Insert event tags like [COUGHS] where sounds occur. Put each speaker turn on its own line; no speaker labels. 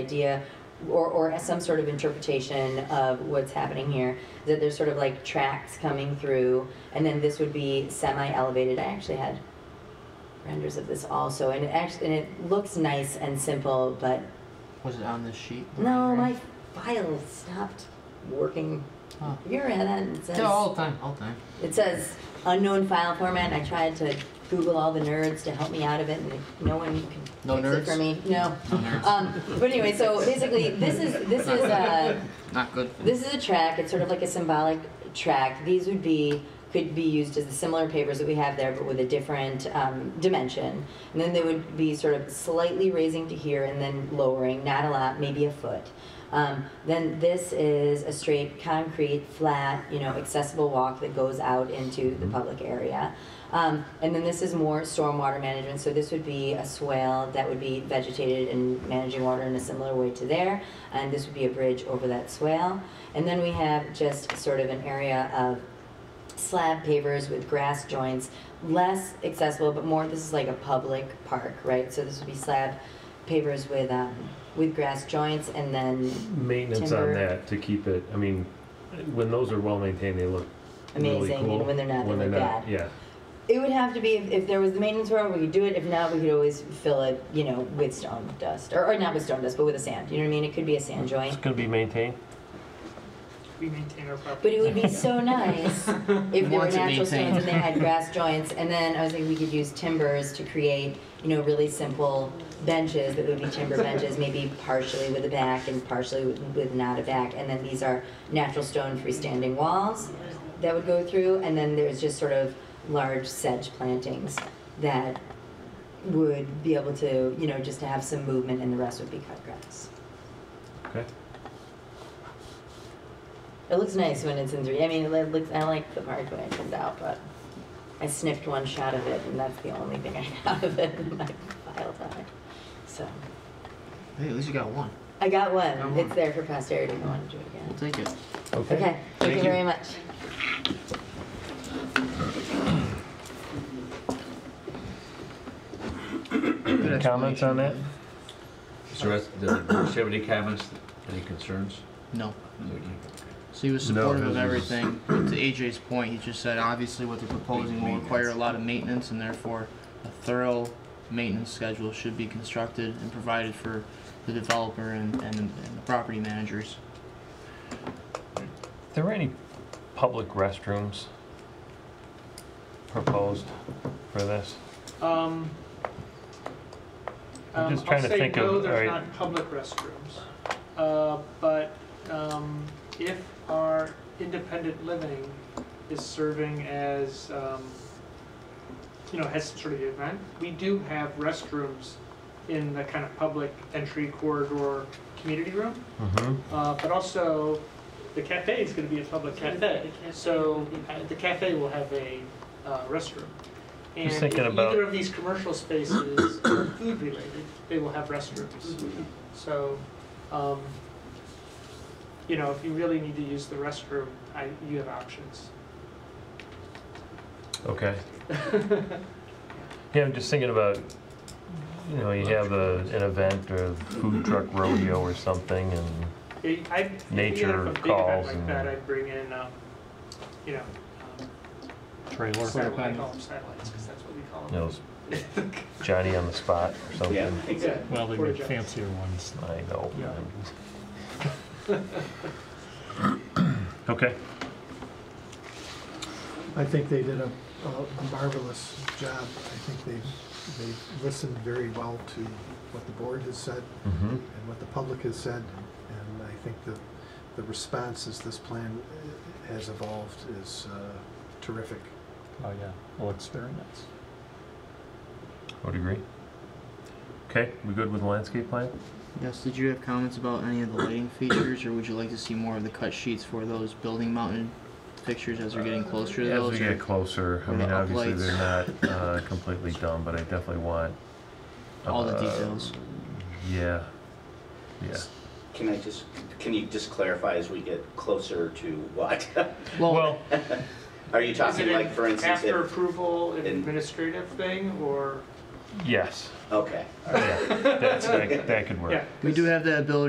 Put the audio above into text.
idea or, or some sort of interpretation of what's happening here that there's sort of like tracks coming through and then this would be semi-elevated i actually had renders of this also and it actually and it looks nice and simple but
Was it on this sheet?
no my file stopped working
Oh.
you're at it says,
Yeah, all the time, all the time.
it says unknown file format and i tried to google all the nerds to help me out of it and no one could
No
fix it
nerds?
for me no
No nerds.
um, but anyway so basically this is this is uh
Not good.
This is a track. It's sort of like a symbolic track. These would be could be used as the similar papers that we have there, but with a different um, dimension. And then they would be sort of slightly raising to here and then lowering, not a lot, maybe a foot. Um, then this is a straight concrete, flat, you know, accessible walk that goes out into the public area. Um, and then this is more stormwater management. So this would be a swale that would be vegetated and managing water in a similar way to there. And this would be a bridge over that swale. And then we have just sort of an area of slab pavers with grass joints, less accessible, but more, this is like a public park, right? So this would be slab pavers with, um, with grass joints and then,
maintenance
Timber.
on that to keep it, I mean, when those are well maintained, they look really
Amazing, and
cool.
when they're not, they
When
look
they're not,
bad.
Yeah,
it would have to be, if, if there was the maintenance road, we could do it. If not, we could always fill it, you know, with stone dust, or, or not with stone dust, but with a sand, you know what I mean? It could be a sand joint.
it's gonna be maintained.
We maintain our property.
But it would
[LAUGHS]
be so nice if there were
Once it
natural stones
maintained.
and they
[LAUGHS]
had grass joints. And then I was thinking we could use timbers to create, you know, really simple benches that would be timber benches, maybe partially with a back and partially with, with not a back. And then these are natural stone freestanding walls that would go through. And then there's just sort of large sedge plantings that would be able to, you know, just to have some movement and the rest would be cut grass.
Okay.
It looks nice when it's in three. I mean, it looks. I like the part when it comes out, but I sniffed one shot of it, and that's the only thing I got of it in my file time. So
Hey, at least you got one.
I got one.
Got one.
It's there for posterity. if I want to do it
We'll
again.
take it.
Okay. Thank,
Thank
you
you.
very much.
Good
Comments on that?
So that's, does the board have any comments, any concerns?
No.
Okay.
So he was
No,
supportive of
this is-
everything. To AJ's point, he just said obviously what they're proposing will require a lot of maintenance and therefore a thorough maintenance schedule should be constructed and provided for the developer and, and, and the property managers.
There were any public restrooms proposed for this?
Um,
I'm
um,
just trying
I'll
to
say
think of-
no, there's
alright.
not public restrooms. Uh, but, um, if our independent living is serving as, um, you know, has some sort of event, we do have restrooms in the kind of public entry corridor community room.
Mm-hmm.
Uh, but also, the cafe is going to be a public cafe. So uh, the cafe will have a uh, restroom. And
Just thinking
if
about-
either of these
[COUGHS]
commercial spaces are food related, they will have restrooms. So, um, you know, if you really need to use the restroom, I, you have options.
Okay. Yeah, I'm just thinking about, you know, you have a, an event or food truck rodeo or something and
I- I, if you
Nature
have a big event
calls
like
and-
that, I'd bring in, um, you know, um,
Sort of
satellite, I
kind
call them satellites, because that's what we call
you know,
them. [LAUGHS]
it's Johnny on the spot or something.
Exactly.
Well, they
Or
make
jets.
fancier ones.
I know.
Yeah.
[LAUGHS] Okay.
I think they did a, a marvelous job. I think they've, they've listened very well to what the board has said
Mm-hmm.
and what the public has said. And I think the, the response as this plan uh, has evolved is uh, terrific.
Oh, yeah. It looks very nice.
Would agree. Okay, we good with the landscape plan?
Yes, did you have comments about any of the lighting features or would you like to see more of the cut sheets for those building mounted pictures as we're getting closer to
As
those?
we
or-
get closer, I
or the
mean, obviously
uplights. [LAUGHS]
they're not uh, completely done, but I definitely want.
All the
uh,
details.
Yeah, yeah.
Can I just, can you just clarify as we get closer to what? [LAUGHS]
Well,
Are you
Is it
talking
an
like, for instance,
After
if,
approval, an
in-
administrative thing, or?
Yes,
Okay.
yeah, that's, that, that could work.
Yeah.
We do have the ability